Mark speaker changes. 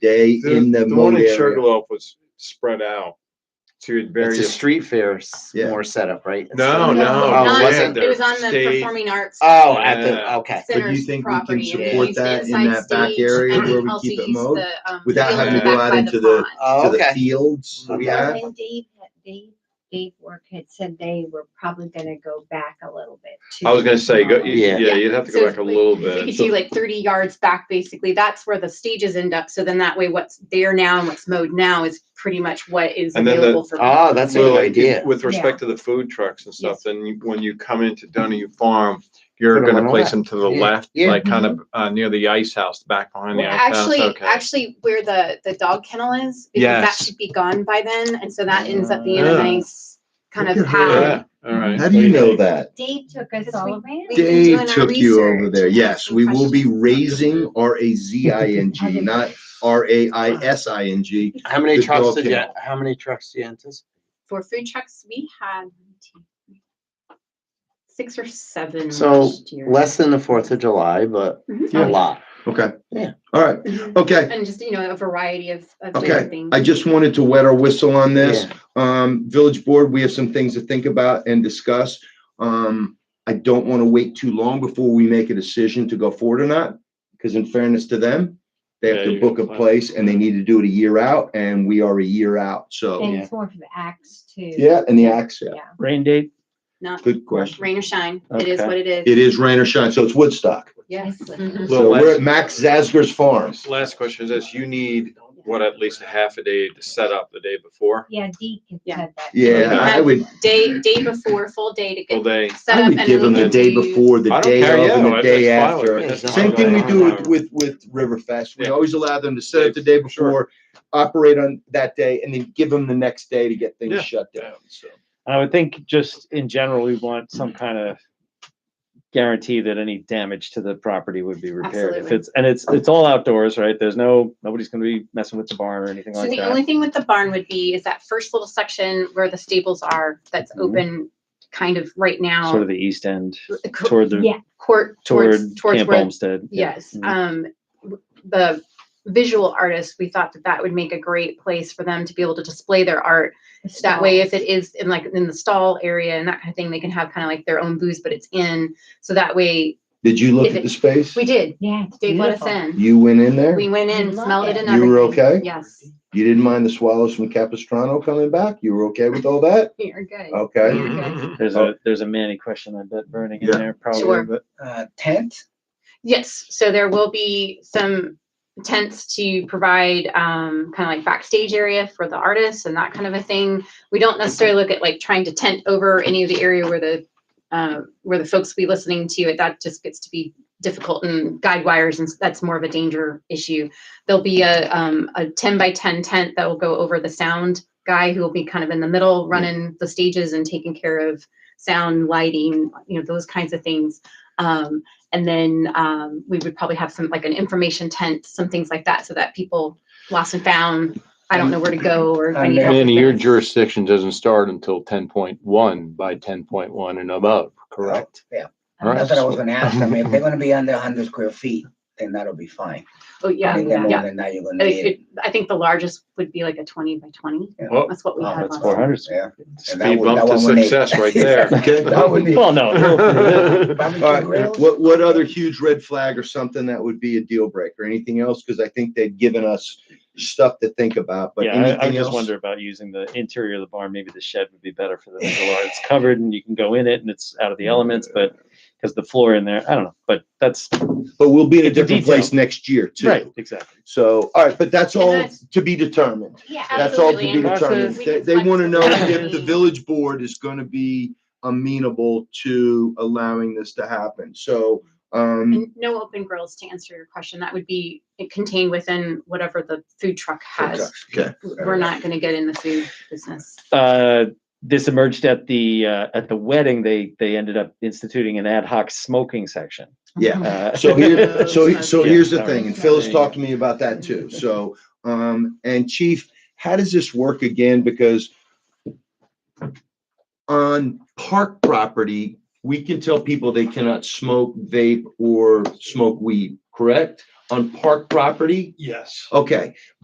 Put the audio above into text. Speaker 1: day in the
Speaker 2: The one
Speaker 1: mode
Speaker 2: in
Speaker 1: area.
Speaker 2: Sugarloaf was spread out to
Speaker 3: It's a
Speaker 2: various.
Speaker 3: street fair s-
Speaker 1: Yeah.
Speaker 3: more setup, right? It's
Speaker 2: No,
Speaker 3: not-
Speaker 2: no,
Speaker 3: Oh,
Speaker 2: no,
Speaker 3: was
Speaker 2: yeah,
Speaker 3: it?
Speaker 2: there-
Speaker 4: It was on the
Speaker 2: state-
Speaker 4: performing arts.
Speaker 3: Oh, at the,
Speaker 2: Yeah.
Speaker 3: okay.
Speaker 1: But
Speaker 4: Center's
Speaker 1: you think we
Speaker 4: property,
Speaker 1: can
Speaker 4: and it
Speaker 1: support
Speaker 4: used
Speaker 1: that in
Speaker 4: inside
Speaker 1: that back
Speaker 4: stage,
Speaker 1: area
Speaker 4: and
Speaker 1: where we
Speaker 4: also
Speaker 1: keep it
Speaker 4: used
Speaker 1: mowed?
Speaker 4: the, um,
Speaker 1: without
Speaker 4: field
Speaker 2: having to
Speaker 4: back
Speaker 1: go out
Speaker 4: by
Speaker 1: into
Speaker 4: pond.
Speaker 1: To
Speaker 3: Oh,
Speaker 1: the
Speaker 3: okay.
Speaker 1: fields we
Speaker 3: Okay.
Speaker 1: have,
Speaker 5: And Dave, had- Dave, Dave Work had said they were probably gonna go back a little bit. to-
Speaker 2: I was gonna say, go,
Speaker 5: Um,
Speaker 2: yeah,
Speaker 4: Yeah.
Speaker 2: you'd have to
Speaker 4: So
Speaker 2: go back a
Speaker 4: if we-
Speaker 2: little
Speaker 4: We
Speaker 2: bit.
Speaker 4: could do like thirty yards back, basically. That's where the stages end up. So then that way what's there now and what's mowed now is pretty much what is
Speaker 2: And then the-
Speaker 4: available for.
Speaker 3: Oh, that's a
Speaker 2: Well,
Speaker 3: good
Speaker 2: like,
Speaker 3: idea.
Speaker 2: With
Speaker 5: Yeah.
Speaker 2: respect to the food trucks and
Speaker 5: Yes.
Speaker 2: stuff, then you- when you come into Donahue Farm, you're
Speaker 3: Put 'em on
Speaker 2: gonna
Speaker 3: the
Speaker 2: place them to the
Speaker 3: Yeah.
Speaker 2: left,
Speaker 3: Yeah.
Speaker 2: like kind of, uh, near the ice house, back behind the
Speaker 4: Mm-hmm. Well,
Speaker 2: ice house,
Speaker 4: actually,
Speaker 2: okay.
Speaker 4: actually where the, the dog kennel is, because that
Speaker 2: Yes.
Speaker 4: should be gone by then. And so that ends up being a
Speaker 2: Yeah.
Speaker 4: nice kind
Speaker 1: Look
Speaker 4: of
Speaker 1: at her.
Speaker 4: path.
Speaker 2: Yeah, all right.
Speaker 1: how do you know that?
Speaker 5: Dave took us
Speaker 4: Because
Speaker 5: all
Speaker 4: we-
Speaker 5: around.
Speaker 4: We've been
Speaker 1: Dave
Speaker 4: doing our
Speaker 1: took you over
Speaker 4: research.
Speaker 1: there. Yes, we will be raising R A Z I N
Speaker 5: I
Speaker 1: G,
Speaker 5: didn't-
Speaker 1: not R A I S I N G.
Speaker 3: How many
Speaker 1: the
Speaker 3: trucks
Speaker 1: dog
Speaker 3: did you,
Speaker 1: kennel.
Speaker 3: how many trucks do you anticipate?
Speaker 4: For food trucks, we had six or seven
Speaker 3: So
Speaker 4: last year.
Speaker 3: less than the Fourth of July, but
Speaker 4: Mhm.
Speaker 3: a lot.
Speaker 1: Okay.
Speaker 3: Yeah.
Speaker 1: All right.
Speaker 4: Mhm.
Speaker 1: Okay.
Speaker 4: And just, you know, a variety of, of different
Speaker 1: Okay.
Speaker 4: things.
Speaker 1: I just wanted to wet our whistle on this.
Speaker 3: Yeah.
Speaker 1: Um, village board, we have some things to think about and discuss. Um, I don't want to wait too long before we make a decision to go forward or not. Because in fairness to them, they
Speaker 2: Yeah,
Speaker 1: have to
Speaker 2: you gotta
Speaker 1: book a
Speaker 2: plan.
Speaker 1: place and they need to do it a year out and we are a year out. So,
Speaker 2: Oh,
Speaker 5: And
Speaker 3: Yeah.
Speaker 5: it's more for the acts too.
Speaker 1: yeah, and the axe, yeah.
Speaker 5: Yeah.
Speaker 6: Rain date?
Speaker 4: Not
Speaker 1: Good question.
Speaker 4: rain or shine. It is
Speaker 2: Okay.
Speaker 4: what it is.
Speaker 1: It is rain or shine, so it's Woodstock.
Speaker 4: Yes. Mm-hmm.
Speaker 5: Mhm.
Speaker 2: Well,
Speaker 1: So we're
Speaker 2: let's-
Speaker 1: at Max Zasger's farm.
Speaker 2: Last question is this, you need, what, at least a half a day to set up the day before?
Speaker 5: Yeah, Deke had
Speaker 4: Yeah.
Speaker 5: said that.
Speaker 1: Yeah, I would,
Speaker 4: Day, day before, full day to
Speaker 2: Full
Speaker 4: get
Speaker 2: day?
Speaker 4: set up.
Speaker 1: I
Speaker 4: and
Speaker 1: would
Speaker 4: then
Speaker 1: give
Speaker 4: we
Speaker 1: them the
Speaker 4: could
Speaker 1: day
Speaker 4: do-
Speaker 1: before, the
Speaker 2: I don't
Speaker 1: day
Speaker 2: care,
Speaker 1: of,
Speaker 2: yeah,
Speaker 1: and the
Speaker 2: that's
Speaker 1: day
Speaker 2: fine with
Speaker 1: after.
Speaker 2: me. That's
Speaker 3: Yeah,
Speaker 1: Same
Speaker 2: fine
Speaker 1: thing we
Speaker 2: with me.
Speaker 1: do with, with, with Riverfest. We
Speaker 2: Yeah.
Speaker 1: always allow them to set up the day
Speaker 2: Sure.
Speaker 1: before, operate on that day, and then give them the next day to get
Speaker 2: Yeah.
Speaker 1: things shut down, so.
Speaker 6: I would think just in general, we want
Speaker 4: Mm-hmm.
Speaker 6: some kind of guarantee that any damage to the property would be repaired. If
Speaker 4: Absolutely.
Speaker 6: it's, and it's, it's all outdoors, right? There's no, nobody's gonna be messing with the barn or anything
Speaker 4: So
Speaker 6: like
Speaker 4: the
Speaker 6: that.
Speaker 4: only thing with the barn would be is that first little section where the stables are, that's
Speaker 1: Mm-hmm.
Speaker 6: Mhm.
Speaker 4: open kind of right
Speaker 6: Sort
Speaker 4: now.
Speaker 6: of the east end
Speaker 4: The co-
Speaker 6: toward the,
Speaker 5: Yeah.
Speaker 4: Court, towards,
Speaker 6: toward
Speaker 4: towards
Speaker 6: Camp
Speaker 4: where,
Speaker 6: Olmsted.
Speaker 4: yes.
Speaker 1: Mm-hmm.
Speaker 6: Mhm.
Speaker 4: Um, w- the visual artists, we thought that that would make a great place for them to be able to display their art.
Speaker 5: The
Speaker 4: That way,
Speaker 5: stall.
Speaker 4: if it is in like in the stall area and that kind of thing, they can have kind of like their own booths, but it's in. So that way,
Speaker 1: Did you look
Speaker 4: If
Speaker 1: at
Speaker 4: it-
Speaker 1: the space?
Speaker 4: we did.
Speaker 5: Yeah. it's
Speaker 4: Dave let us
Speaker 5: beautiful.
Speaker 4: in.
Speaker 1: You went in there?
Speaker 4: We
Speaker 1: You
Speaker 4: went in,
Speaker 5: Love
Speaker 4: smelled it
Speaker 5: it.
Speaker 4: and everything.
Speaker 1: were okay?
Speaker 4: Yes,
Speaker 1: You didn't mind the swallows from Capistrano coming back? You were okay with all that?
Speaker 4: you're good.
Speaker 1: Okay.
Speaker 2: Mm-hmm.
Speaker 6: There's a, there's a Manny question I bet burning in
Speaker 1: Yeah.
Speaker 6: there
Speaker 4: Sure.
Speaker 6: probably, but
Speaker 7: uh, tent.
Speaker 4: Yes, so there will be some tents to provide um, kind of like backstage area for the artists and that kind of a thing. We don't necessarily look at like trying to tent over any of the area where the uh, where the folks be listening to it. That just gets to be difficult and guide wires, and that's more of a danger issue. There'll be a um, a ten by ten tent that will go over the sound guy who will be kind of in the middle, running the stages and taking care of sound, lighting, you know, those kinds of things. Um, and then um, we would probably have some like an information tent, some things like that, so that people lost and found. I don't know where to go or if I
Speaker 7: And
Speaker 4: need help.
Speaker 8: Manny,
Speaker 4: with
Speaker 8: your
Speaker 4: this.
Speaker 8: jurisdiction doesn't start until ten point one by ten point one and above, correct?
Speaker 7: Yeah.
Speaker 8: All right.
Speaker 7: That's what I was gonna ask them. If they're gonna be under hundred square feet, then that'll be fine.
Speaker 4: Oh yeah,
Speaker 7: Anything more
Speaker 4: yeah.
Speaker 7: than that, you're
Speaker 4: I
Speaker 7: gonna
Speaker 4: think
Speaker 7: need.
Speaker 4: it- I think the largest would be like a twenty by twenty.
Speaker 2: Well,
Speaker 4: That's what we
Speaker 1: Oh,
Speaker 7: wow,
Speaker 4: had
Speaker 6: that's
Speaker 4: last.
Speaker 6: four
Speaker 4: time.
Speaker 6: hundred.
Speaker 7: Yeah. And that
Speaker 2: Speed
Speaker 7: would-
Speaker 2: bump
Speaker 7: that
Speaker 2: to
Speaker 7: one would need-
Speaker 2: success right there.
Speaker 1: Okay.
Speaker 7: That would be.
Speaker 6: Well, no.
Speaker 7: Barbecue
Speaker 1: All right,
Speaker 7: grills?
Speaker 1: what, what other huge red flag or something that would be a deal breaker? Anything else? Because I think they've given us stuff to think about, but
Speaker 6: Yeah, I, I
Speaker 1: anything
Speaker 6: just
Speaker 1: else?
Speaker 6: wonder about using the interior of the barn. Maybe the shed would be better for the visual art. It's covered and you can go in it and it's out of the elements, but because the floor in there, I don't know, but that's
Speaker 1: But we'll be in a
Speaker 6: It's a
Speaker 1: different
Speaker 6: detail.
Speaker 1: place next year
Speaker 6: right.
Speaker 1: too.
Speaker 6: Exactly.
Speaker 1: So, all right, but that's
Speaker 4: And
Speaker 1: all
Speaker 4: that's-
Speaker 1: to be determined.
Speaker 5: Yeah.
Speaker 1: That's all to
Speaker 4: Absolutely,
Speaker 1: be
Speaker 4: and
Speaker 1: determined.
Speaker 4: we
Speaker 1: They,
Speaker 4: can
Speaker 1: want to know if
Speaker 4: flexibility.
Speaker 1: the village board is going to be amenable to allowing this to happen. So, um,
Speaker 4: And no open grills to answer your question. That would be contained within whatever the food truck has.
Speaker 1: okay.
Speaker 4: We're not going to get in the food business.
Speaker 6: Uh, this emerged at the uh, at the wedding. They they ended up instituting an ad hoc smoking section.
Speaker 1: Yeah.
Speaker 6: Uh,
Speaker 1: So here, so, he- so
Speaker 6: Yeah,
Speaker 1: here's the
Speaker 6: all
Speaker 1: thing,
Speaker 6: right.
Speaker 1: and Phil has
Speaker 6: There you
Speaker 1: talked to me about that too. So, um, and Chief, how does this work again? Because on park property, we can tell people they cannot smoke, vape, or smoke weed, correct?
Speaker 2: on park property?
Speaker 1: Yes.
Speaker 2: Okay,